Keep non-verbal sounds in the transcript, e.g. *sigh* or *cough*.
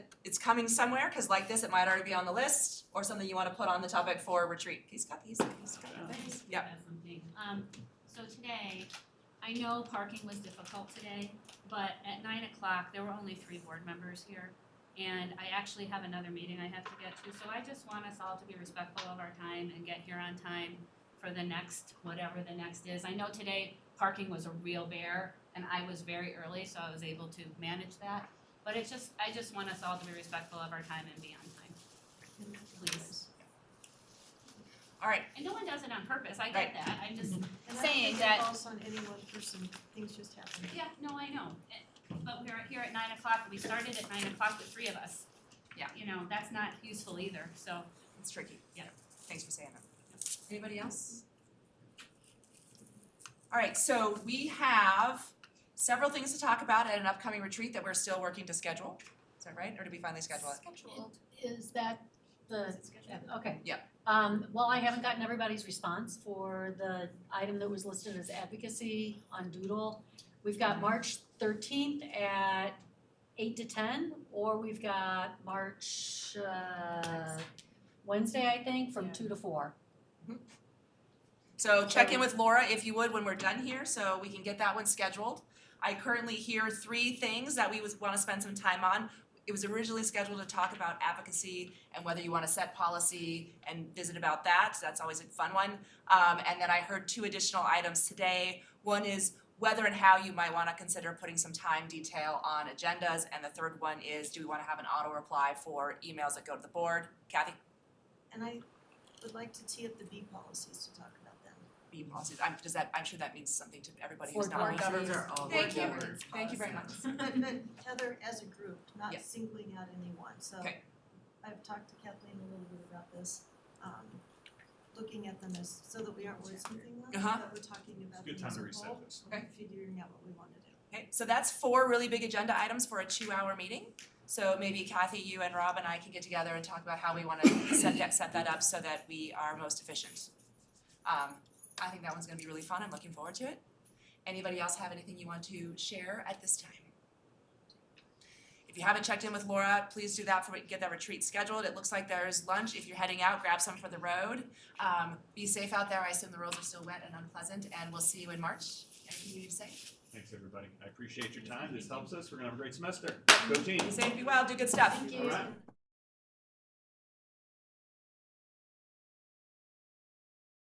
it's coming somewhere, cause like this, it might already be on the list, or something you wanna put on the topic for retreat. He's got these, he's got these, yeah. That's something. Um, so today, I know parking was difficult today, but at nine o'clock, there were only three board members here. And I actually have another meeting I have to get to, so I just want us all to be respectful of our time and get here on time for the next, whatever the next is. I know today, parking was a real bear, and I was very early, so I was able to manage that. But it's just, I just want us all to be respectful of our time and be on time, please. Alright. And no one does it on purpose, I get that, I'm just, And saying that- I don't think it falls on any one person, things just happen. Yeah, no, I know, Eh, but we're here at nine o'clock, we started at nine o'clock with three of us. Yeah. You know, that's not useful either, so. It's tricky. Yeah. Thanks for saying that. Anybody else? All right, so we have several things to talk about at an upcoming retreat that we're still working to schedule. Is that right? Or did we finally schedule it? Scheduled. Is that the, okay. Yeah. Um, well, I haven't gotten everybody's response for the item that was listed as advocacy on Doodle. We've got March thirteenth at eight to ten, or we've got March uh Wednesday, I think, from Yeah. two to four. So check in with Laura if you would when we're done here, so we can get that one scheduled. I currently hear three things that we would wanna spend some time on. It was originally scheduled to talk about advocacy and whether you wanna set policy and visit about that, so that's always a fun one. Um, and then I heard two additional items today. One is whether and how you might wanna consider putting some time detail on agendas. And the third one is, do we wanna have an auto reply for emails that go to the board? Kathy? And I would like to tee up the B policies to talk about them. Be policies, I'm, does that, I'm sure that means something to everybody who's For not. on board the- governors. Thank you, Board thank you very much. *laughs* But but Heather as a group, not Yeah. singling out anyone, so. Okay. I've talked to Kathleen a little bit about this, um, looking at them as, so that we aren't wordsmithing them, Uh-huh. but we're talking about them It's a good time as to a reset whole, this. Okay. figuring out what we wanna do. Okay, so that's four really big agenda items for a two-hour meeting. So maybe Kathy, you and Rob and I can get together and talk about how we wanna *coughs* set that, set that up so that we are most efficient. Um, I think that one's gonna be really fun, I'm looking forward to it. Anybody else have anything you want to share at this time? If you haven't checked in with Laura, please do that for, get that retreat scheduled, it looks like there's lunch, if you're heading out, grab some for the road. Um, be safe out there, I assume the roads are still wet and unpleasant, and we'll see you in March. Anything you need to say? Thanks, everybody. I appreciate your time. This helps us. We're gonna have a great semester. Go team. Be safe, be well, do good stuff. All right.